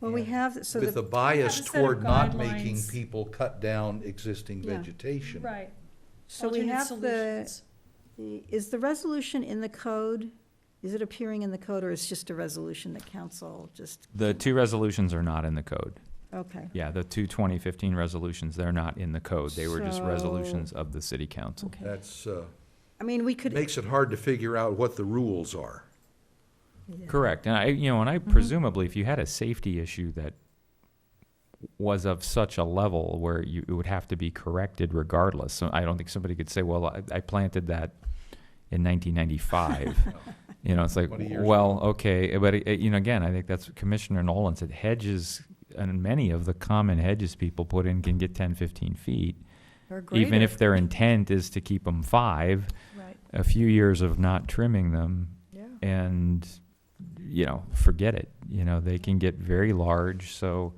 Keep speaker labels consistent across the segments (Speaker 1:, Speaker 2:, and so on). Speaker 1: Well, we
Speaker 2: and
Speaker 1: have, so
Speaker 2: With a
Speaker 1: the,
Speaker 2: bias
Speaker 3: Have a set of
Speaker 2: toward not making
Speaker 3: guidelines.
Speaker 2: people cut down existing
Speaker 1: Yeah.
Speaker 2: vegetation.
Speaker 3: Right.
Speaker 1: so we
Speaker 3: alternate
Speaker 1: have the,
Speaker 3: solutions.
Speaker 1: the- is the resolution in the code? Is it appearing in the code, or is just a resolution that council just,
Speaker 4: The two resolutions are not in the code.
Speaker 1: okay,
Speaker 4: Yeah, the two 2015 resolutions, they're not in the code. They were just
Speaker 1: So-
Speaker 4: resolutions of the city council.
Speaker 1: okay.
Speaker 2: That's, uh,
Speaker 1: I mean, we could,
Speaker 2: makes it hard to figure out what the rules are.
Speaker 4: Correct. And I, you know, and
Speaker 1: Mm-hmm.
Speaker 4: I presumably, if you had a safety issue that was of such a level where you, it would have to be corrected regardless. So I don't think somebody could say, well, I, I planted that in 1995. you know, it's like,
Speaker 2: 20 years
Speaker 4: well, okay. But, it, it- you know, again, I think that's what Commissioner Nolan said hedges and many of the common hedges people put in can get 10, 15 feet.
Speaker 5: Or
Speaker 4: Even
Speaker 5: greater.
Speaker 4: if their intent is to keep them five,
Speaker 5: Right,
Speaker 4: a few years of not trimming them
Speaker 5: yeah.
Speaker 4: and you know forget it you know they can get very large so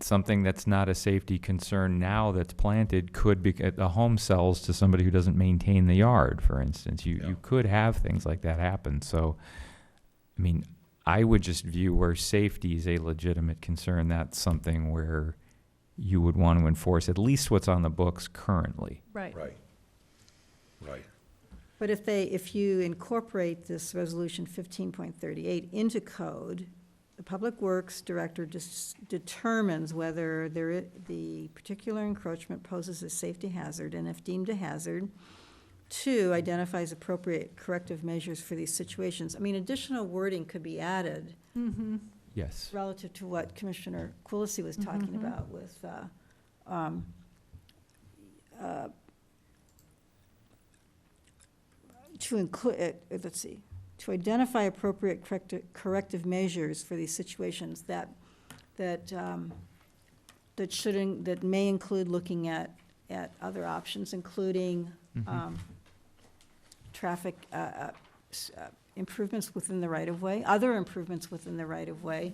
Speaker 4: something that's not a safety concern now that's planted could be a home sells to somebody who doesn't maintain the yard for instance you
Speaker 2: Yeah.
Speaker 4: you could have things like that happen so i mean i would just view where safety is a legitimate concern that's something where you would want to enforce at least what's on the books currently
Speaker 5: Right.
Speaker 2: Right, right.
Speaker 1: but if they, if you incorporate this resolution fifteen point thirty-eight into code, the Public Works Director dis- determines whether there, i- the particular encroachment poses a safety hazard, and if deemed a hazard, two, identifies appropriate corrective measures for these situations. I mean, additional wording could be added
Speaker 5: Mm-hmm.
Speaker 4: yes
Speaker 1: relative to what Commissioner Quilisi was talking
Speaker 5: Mhm.
Speaker 1: about with, uh, um, uh, to include, let's see, to identify appropriate correcti- corrective measures for these situations that, that, um, that shouldn't, that may include looking at, at other options, including
Speaker 4: Mhm.
Speaker 1: um, traffic uh, uh, s- uh, improvements within the right-of-way, other improvements within the right-of-way,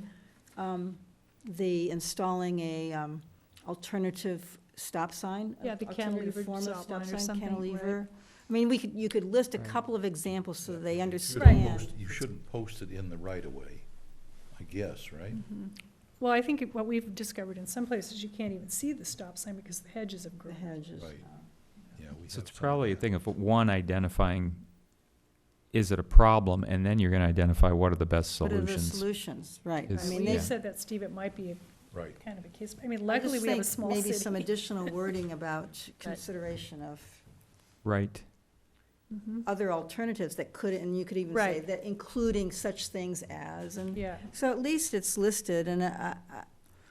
Speaker 1: um, the installing a um, alternative stop sign.
Speaker 3: Yeah, the
Speaker 1: alternative
Speaker 3: cantilevered
Speaker 1: form of
Speaker 3: stop line or
Speaker 1: sign,
Speaker 3: something, right.
Speaker 1: Cantilever. I mean, we could, you could list a
Speaker 4: Right.
Speaker 1: couple of examples so that they
Speaker 2: You shouldn't
Speaker 1: understand.
Speaker 2: post- You shouldn't post it in the right of way, I guess, right?
Speaker 3: Mm. Mm-hmm. Well, I think what we've discovered in some places, you can't even see the stop sign because the hedges have
Speaker 1: The
Speaker 3: grown.
Speaker 1: hedges. uh,
Speaker 2: Right. Yeah, we have
Speaker 4: So it's
Speaker 2: some of
Speaker 4: probably a
Speaker 2: that.
Speaker 4: thing of one identifying, is it a problem, and then you're gonna identify what are the best
Speaker 1: What are the
Speaker 4: solutions.
Speaker 1: solutions, right. I
Speaker 4: Is-
Speaker 1: mean,
Speaker 3: Well,
Speaker 1: they
Speaker 3: you
Speaker 4: yeah.
Speaker 3: said that, Steve, it might be a-
Speaker 2: Right.
Speaker 3: kind of a case, I mean,
Speaker 1: I
Speaker 3: luckily
Speaker 1: just
Speaker 3: we have a
Speaker 1: think
Speaker 3: small
Speaker 1: Maybe some
Speaker 3: city.
Speaker 1: additional wording about consideration of
Speaker 4: Right,
Speaker 1: other alternatives that could, and you could even say
Speaker 3: Mm-hmm. Right.
Speaker 1: that including such things as, and,
Speaker 3: Yeah,
Speaker 1: so at least it's listed, and uh, I, I,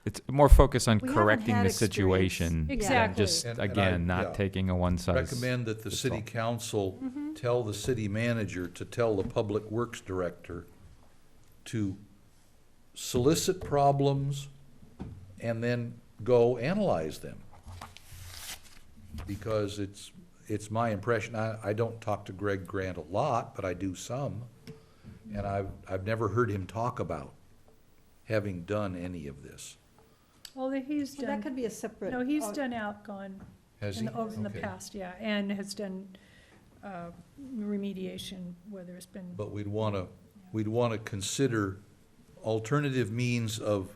Speaker 4: it's more focus on
Speaker 1: We haven't
Speaker 4: correcting
Speaker 1: had
Speaker 4: the
Speaker 1: experience.
Speaker 4: situation. than
Speaker 3: Exactly.
Speaker 4: Just,
Speaker 2: And- and I-
Speaker 4: again,
Speaker 2: yeah.
Speaker 4: not taking a one size.
Speaker 2: Recommend that the
Speaker 4: fits
Speaker 2: city
Speaker 4: all.
Speaker 2: council
Speaker 3: Mm-hmm.
Speaker 2: tell the city manager to tell the public works director to solicit problems and then go analyze them. Because it's, it's my impression, I, I don't talk to Greg Grant a lot, but I do some. And I've, I've never heard him talk about having done any of this.
Speaker 3: well, that he's
Speaker 1: so that
Speaker 3: done,
Speaker 1: could be a separate.
Speaker 3: no, he's
Speaker 1: oh,
Speaker 3: done outgone
Speaker 2: Has
Speaker 3: in
Speaker 2: he?
Speaker 3: the, over in the
Speaker 2: Okay.
Speaker 3: past, yeah, and has done, uh, remediation where there's been,
Speaker 2: But we'd want to, we'd want to consider alternative means of,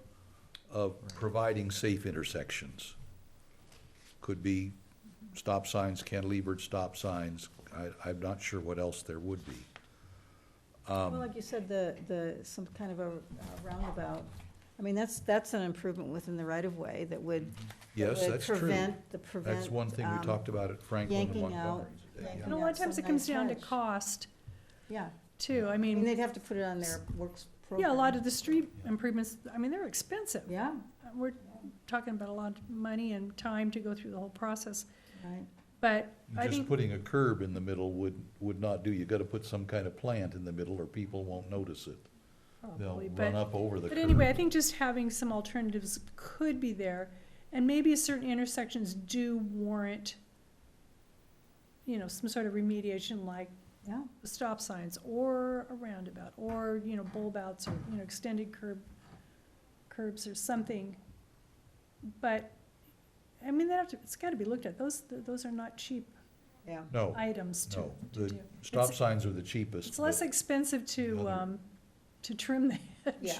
Speaker 2: of providing safe intersections. Could be stop signs, cantilevered stop signs. I, I'm not sure what else there would be.
Speaker 1: Well,
Speaker 2: Um,
Speaker 1: like you said, the, the, some kind of a uh, roundabout, I mean, that's, that's an improvement within the right-of-way that would. that
Speaker 2: Mm-hmm. Yes,
Speaker 1: would
Speaker 2: that's true.
Speaker 1: Prevent, the prevent.
Speaker 2: That's one thing we
Speaker 1: um,
Speaker 2: talked about at Franklin and
Speaker 1: yanking out-
Speaker 2: Montgomery. today, yeah.
Speaker 1: yanking
Speaker 3: and a lot of
Speaker 1: Yeah,
Speaker 3: times it
Speaker 1: some
Speaker 3: comes
Speaker 1: nice
Speaker 3: down to
Speaker 1: hedge.
Speaker 3: cost,
Speaker 1: Yeah,
Speaker 3: too, I
Speaker 1: I mean,
Speaker 3: mean,
Speaker 1: they'd have to put it on their works program.
Speaker 3: yeah, a lot of the street
Speaker 2: Yeah.
Speaker 3: improvements, I mean, they're expensive. Uh,
Speaker 1: Yeah,
Speaker 3: We're talking about a lot of money and time to go through the whole process,
Speaker 1: right,
Speaker 3: but I
Speaker 2: Just
Speaker 3: think,
Speaker 2: putting a curb in the middle would, would not do. You got to put some kind of plant in the middle or people won't notice it. They'll
Speaker 3: probably,
Speaker 2: run
Speaker 3: Oh, but,
Speaker 2: up over the curb.
Speaker 3: but anyway, I think just having some alternatives could be there. And maybe certain intersections do warrant, you know, some sort of remediation like
Speaker 1: yeah.
Speaker 3: stop signs or a roundabout or, you know, bulb outs or, you know, extended curb, curbs or something. But, I mean, that have to, it's gotta be looked at. Those, those are not cheap
Speaker 1: Yeah,
Speaker 2: No,
Speaker 3: items to,
Speaker 2: no.
Speaker 3: to
Speaker 2: The
Speaker 3: do.
Speaker 2: stop
Speaker 3: It's-
Speaker 2: signs are the cheapest.
Speaker 3: It's
Speaker 2: but-
Speaker 3: less expensive to,
Speaker 2: Another-
Speaker 3: um, to trim the hedge.
Speaker 1: yeah,